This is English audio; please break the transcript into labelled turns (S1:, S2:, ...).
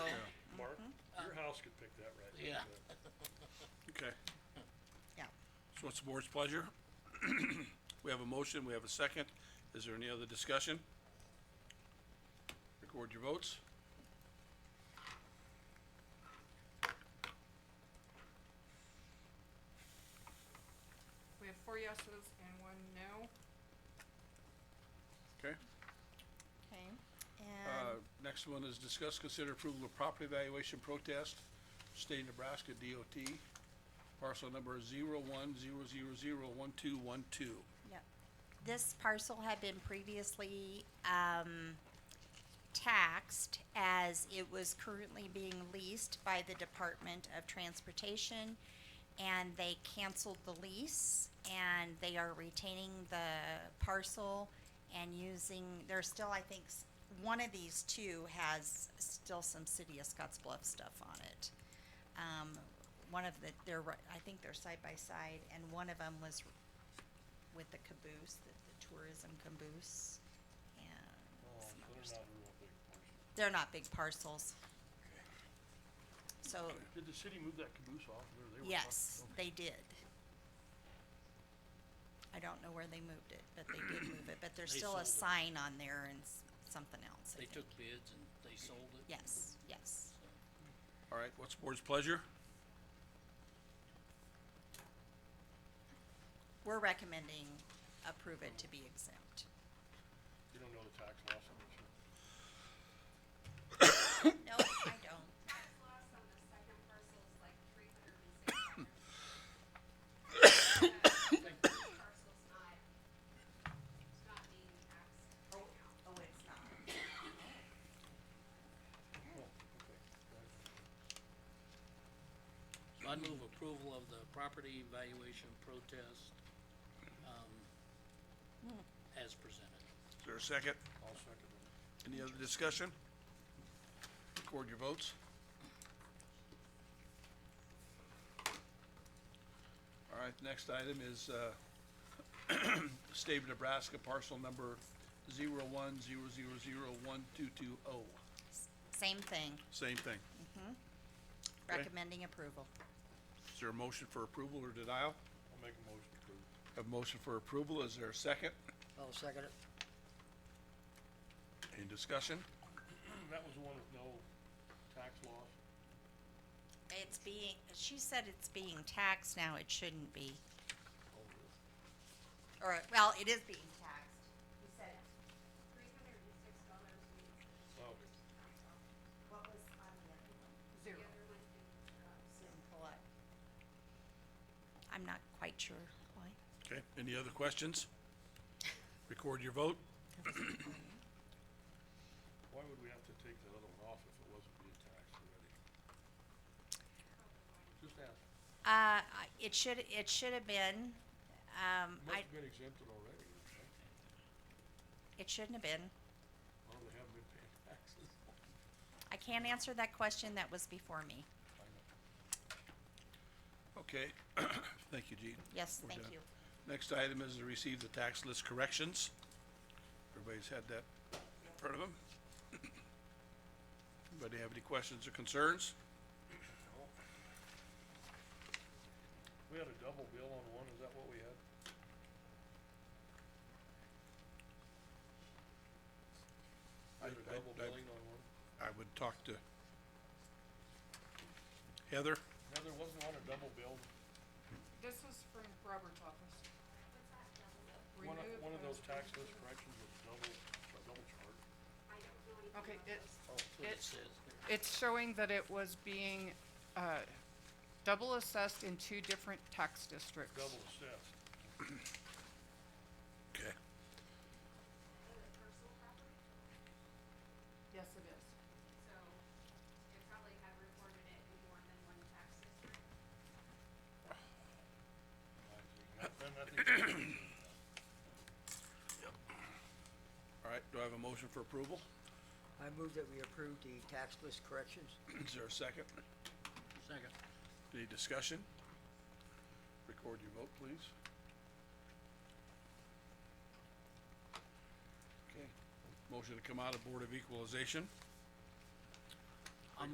S1: else could pick that right. now,
S2: Yeah.
S1: but-
S3: Okay.
S4: Yeah.
S3: So what's the board's pleasure? We have a motion, we have a second. Is there any other discussion? Record your votes.
S5: We have four yeses and one no.
S3: Okay.
S4: Okay,
S3: Uh,
S4: and,
S1: Um.
S3: next one is discuss, consider approval of property valuation protest, state of Nebraska DOT, parcel number zero one zero zero zero one two one two.
S4: yep. This parcel had been previously, um, taxed as it was currently being leased by the Department of Transportation. And they canceled the lease and they are retaining the parcel and using, there's still, I think, s- one of these two has still some City of Scotts Bluff stuff on it. Um, one of the, they're, ri- I think they're side by side and one of them was with the caboose, the, the tourism caboose and
S1: Oh,
S4: some
S1: so
S4: other
S1: they're
S4: stuff.
S1: not a real big parcel.
S4: They're not big parcels. So,
S1: Did the city move that caboose off? Where they were parked?
S4: yes,
S1: Okay.
S4: they did. I don't know where they moved it, but they did move it, but there's
S2: They
S4: still a
S2: sold it.
S4: sign on there and s- something else, I
S2: They
S4: think.
S2: took bids and they sold it.
S4: Yes, yes.
S3: All right, what's the board's pleasure?
S4: We're recommending approve it to be exempt.
S1: You don't know the tax loss on this one?
S4: No, I don't.
S6: tax loss on the second parcel is like three hundred and sixty dollars. The first parcel's not, it's not being taxed right now.
S4: Oh, it's not.
S2: So I move approval of the property valuation protest, um, as presented.
S3: Is there a second?
S1: I'll second it.
S3: Any other discussion? Record your votes. All right, next item is, uh, State of Nebraska parcel number zero one zero zero zero one two two oh.
S4: Same thing,
S3: Same thing. Okay.
S4: recommending approval.
S3: Is there a motion for approval or denial?
S1: I'll make a motion to approve.
S3: Have a motion for approval. Is there a second?
S7: I'll second it.
S3: Any discussion?
S1: That was the one with no tax loss.
S4: It's being, she said it's being taxed now, it shouldn't be. Or, well, it is being taxed. He said,
S6: Three hundred and six dollars means it's
S1: Oh,
S6: tax off.
S4: what was on the other one?
S6: The other one didn't, uh,
S4: Didn't pull up. I'm not quite sure why.
S3: Okay, any other questions? Record your vote.
S1: why would we have to take the other one off if it wasn't being taxed already? Just ask.
S4: Uh, I- it should, it should have been, um,
S1: It must
S4: I,
S1: have been exempted already, right?
S4: it shouldn't have been.
S1: Well, they haven't been paying taxes.
S4: I can't answer that question, that was before me.
S1: I know.
S3: Okay, thank you, Gene.
S4: Yes,
S3: We're
S4: thank
S3: done.
S4: you.
S3: Next item is to receive the tax list corrections. Everybody's had that in front of them. Anybody have any questions or concerns?
S1: We had a double bill on one, is that what we had?
S3: I-
S1: We had a
S3: I-
S1: double
S3: I-
S1: billing on one?
S3: I would talk to Heather.
S1: No, there wasn't one a double bill.
S5: This is from Robert's office.
S1: One of,
S5: Remove
S1: one of
S5: those
S1: those tax list corrections was double, a double charge.
S6: I don't know anything
S5: Okay,
S6: about
S5: it,
S6: those.
S1: Oh, so
S5: it,
S2: It says there.
S5: it's showing that it was being, uh, double assessed in two different tax districts.
S1: double assessed.
S3: Okay.
S6: The personal property,
S5: Yes, it is.
S6: so it probably had reported it in more than one tax district.
S1: I see. That- Then I think,
S3: All right, do I have a motion for approval?
S7: I move that we approve the tax list corrections.
S3: Is there a second?
S2: Second.
S3: Any discussion? Record your vote, please. Okay, motion to come out of Board of Equalization.